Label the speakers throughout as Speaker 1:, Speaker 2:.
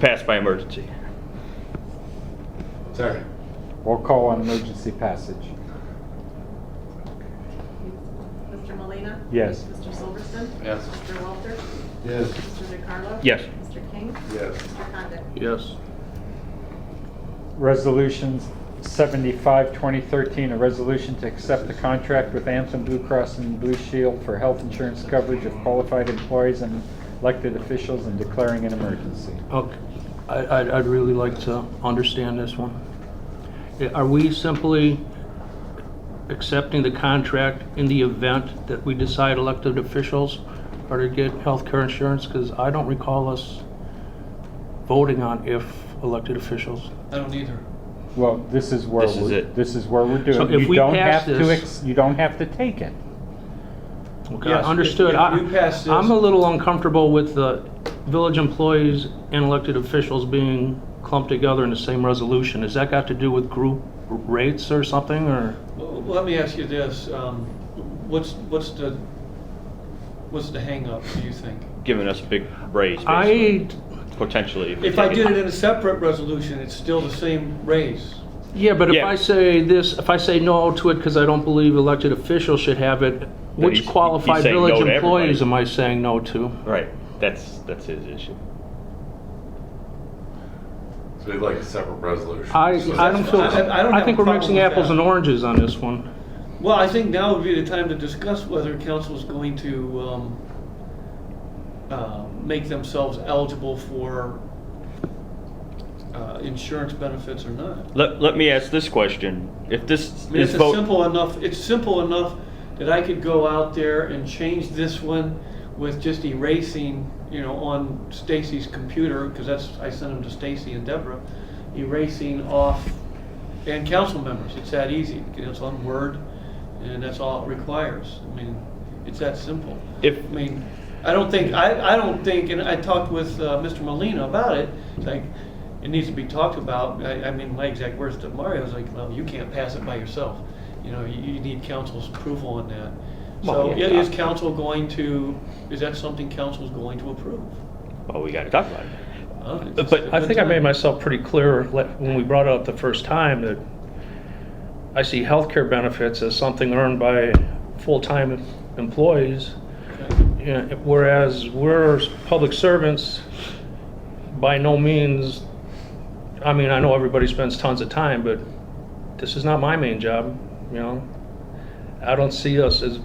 Speaker 1: Passed by emergency.
Speaker 2: Second.
Speaker 3: Roll call on emergency passage.
Speaker 4: Mr. Molina,
Speaker 3: Yes.
Speaker 4: Mr. Silverston?
Speaker 2: Yes.
Speaker 4: Mr. Walter?
Speaker 2: Yes.
Speaker 4: Mr. DeCarlo?
Speaker 1: Yes.
Speaker 4: Mr. King?
Speaker 2: Yes.
Speaker 4: Mr. Condit?
Speaker 1: Yes.
Speaker 3: Resolutions 75, 2013, a resolution to accept the contract with Anthem Blue Cross and Blue Shield for health insurance coverage of qualified employees and elected officials and declaring an emergency.
Speaker 5: Okay, I, I'd, I'd really like to understand this one. Yeah, Are we simply accepting the contract in the event that we decide elected officials are to get health care insurance? Because I don't recall us voting on if elected officials.
Speaker 6: I don't either.
Speaker 3: Well, this is where
Speaker 1: This is
Speaker 3: we're,
Speaker 1: it.
Speaker 3: this is where we're
Speaker 5: So
Speaker 3: doing.
Speaker 5: if
Speaker 3: You
Speaker 5: we
Speaker 3: don't
Speaker 5: pass
Speaker 3: have to,
Speaker 5: this-
Speaker 3: ex- you don't have to take it.
Speaker 5: Okay,
Speaker 6: Yes, if-
Speaker 5: understood.
Speaker 6: if
Speaker 5: I-
Speaker 6: you pass this-
Speaker 5: I'm a little uncomfortable with the village employees and elected officials being clumped together in the same resolution. Has that got to do with group rates or something, or?
Speaker 6: Well, Let me ask you this, um, what's, what's the, what's the hangup, do you think?
Speaker 1: Giving us a big raise,
Speaker 5: I,
Speaker 1: basically, potentially. we
Speaker 6: If I
Speaker 1: take
Speaker 6: did it in a separate resolution, it's still the same raise.
Speaker 5: yeah, but if
Speaker 1: Yeah.
Speaker 5: I say this, if I say no to it because I don't believe elected officials should have it,
Speaker 1: he's-
Speaker 5: which
Speaker 1: he's
Speaker 5: qualified
Speaker 1: saying no
Speaker 5: village
Speaker 1: to
Speaker 5: employees
Speaker 1: everybody.
Speaker 5: am I saying no to?
Speaker 1: Right, that's, that's his issue.
Speaker 2: So we'd like a separate resolution.
Speaker 5: I, I don't feel,
Speaker 6: I- I don't
Speaker 5: I
Speaker 6: have
Speaker 5: think
Speaker 6: a
Speaker 5: we're
Speaker 6: problem
Speaker 5: mixing
Speaker 6: with
Speaker 5: apples
Speaker 6: that.
Speaker 5: and oranges on this one.
Speaker 6: Well, I think now would be the time to discuss whether council's going to, um, uh, make themselves eligible for, uh, insurance benefits or not.
Speaker 1: Let, let me ask this question. If this,
Speaker 6: I mean,
Speaker 1: this
Speaker 6: it's a
Speaker 1: vote,
Speaker 6: simple enough. It's simple enough that I could go out there and change this one with just erasing, you know, on Stacy's computer because that's I sent them to Stacy and Deborah, erasing off and council members. It's that easy. It's on Word, and that's all it requires. I mean, it's that simple.
Speaker 1: if,
Speaker 6: I mean, I don't think, I, I don't think, and I talked with uh, Mr. Molina about it, it's like, it needs to be talked about. I, I mean, my exact words to Mario was like, well, you can't pass it by yourself. You know, you, you need council's approval on that. So
Speaker 1: Well, yeah.
Speaker 6: i- is council going to, is that something council's going to approve?
Speaker 1: well, Oh, we gotta talk about it.
Speaker 6: Uh, it's just
Speaker 5: But
Speaker 6: a
Speaker 5: I
Speaker 6: good
Speaker 5: think I made
Speaker 6: time.
Speaker 5: myself pretty clear le- when we brought it up the first time that I see healthcare benefits as something earned by full-time employees,
Speaker 6: Okay.
Speaker 5: yeah, whereas we're public servants, by no means, I mean, I know everybody spends tons of time, but this is not my main job, you know? I don't see us as,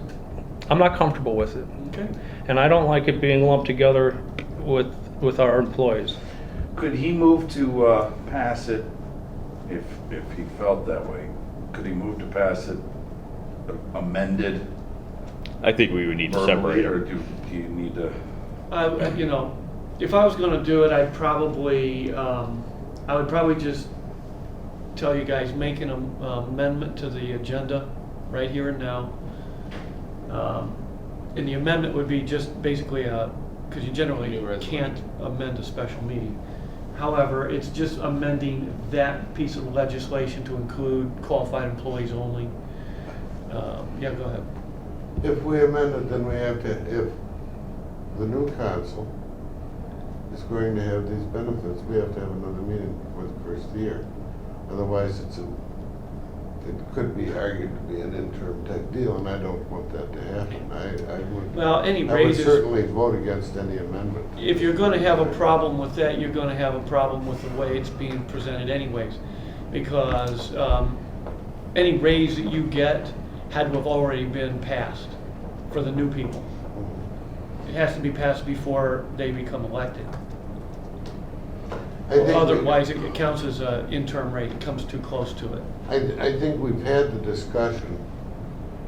Speaker 5: I'm not comfortable with it.
Speaker 6: Okay.
Speaker 5: And I don't like it being lumped together with, with our employees.
Speaker 2: Could he move to uh, pass it, if, if he felt that way, could he move to pass it amended
Speaker 1: I think we would need to
Speaker 2: verbally,
Speaker 1: separate
Speaker 2: or
Speaker 1: it.
Speaker 2: do do you need to?
Speaker 6: I, you know, if I was gonna do it, I'd probably, um, I would probably just tell you guys, make an am- uh, amendment to the agenda right here and now. Um, And the amendment would be just basically a, because you generally can't amend a special meeting. However, it's just amending that piece of legislation to include qualified employees only. Um, Yeah, go ahead.
Speaker 7: If we amend it, then we have to, if the new council is going to have these benefits, we have to have another meeting for the first year. Otherwise, it's a, it could be argued to be an interim type deal, and I don't want that to happen. I, I would.
Speaker 6: Well, any
Speaker 7: I would
Speaker 6: raises.
Speaker 7: certainly vote against any amendment.
Speaker 6: If you're gonna have a problem with that, you're gonna have a problem with the way it's being presented anyways. Because, um, any raise that you get had to have already been passed for the new people. It has to be passed before they become elected.
Speaker 7: I think we-
Speaker 6: Otherwise, it counts as a interim rate, it comes too close to it.
Speaker 7: I, I think we've had the discussion,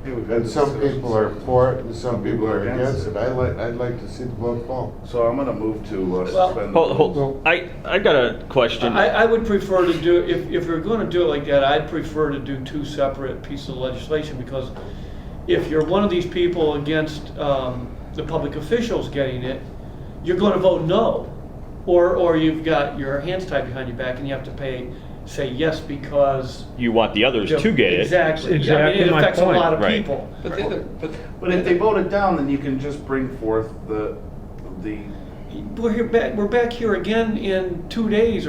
Speaker 7: and some people are for it, and some people are against it. I like, I'd like to see the vote fall.
Speaker 2: So I'm gonna move to uh,
Speaker 6: Well-
Speaker 2: suspend. the
Speaker 1: Hold,
Speaker 2: rules.
Speaker 1: hold, I, I got a question.
Speaker 6: I, I would prefer to do, if, if you're gonna do it like that, I'd prefer to do two separate pieces of legislation, because if you're one of these people against, um, the public officials getting it, you're gonna vote no. Or, or you've got your hands tied behind your back and you have to pay, say yes because.
Speaker 1: You want the others to get it.
Speaker 6: Exactly. I mean,
Speaker 5: Exactly my
Speaker 6: It affects a
Speaker 5: point.
Speaker 6: lot of
Speaker 1: Right.
Speaker 6: people.
Speaker 2: But if they vote it down, then you can just bring forth the, the
Speaker 6: we're here back, we're back here again in two days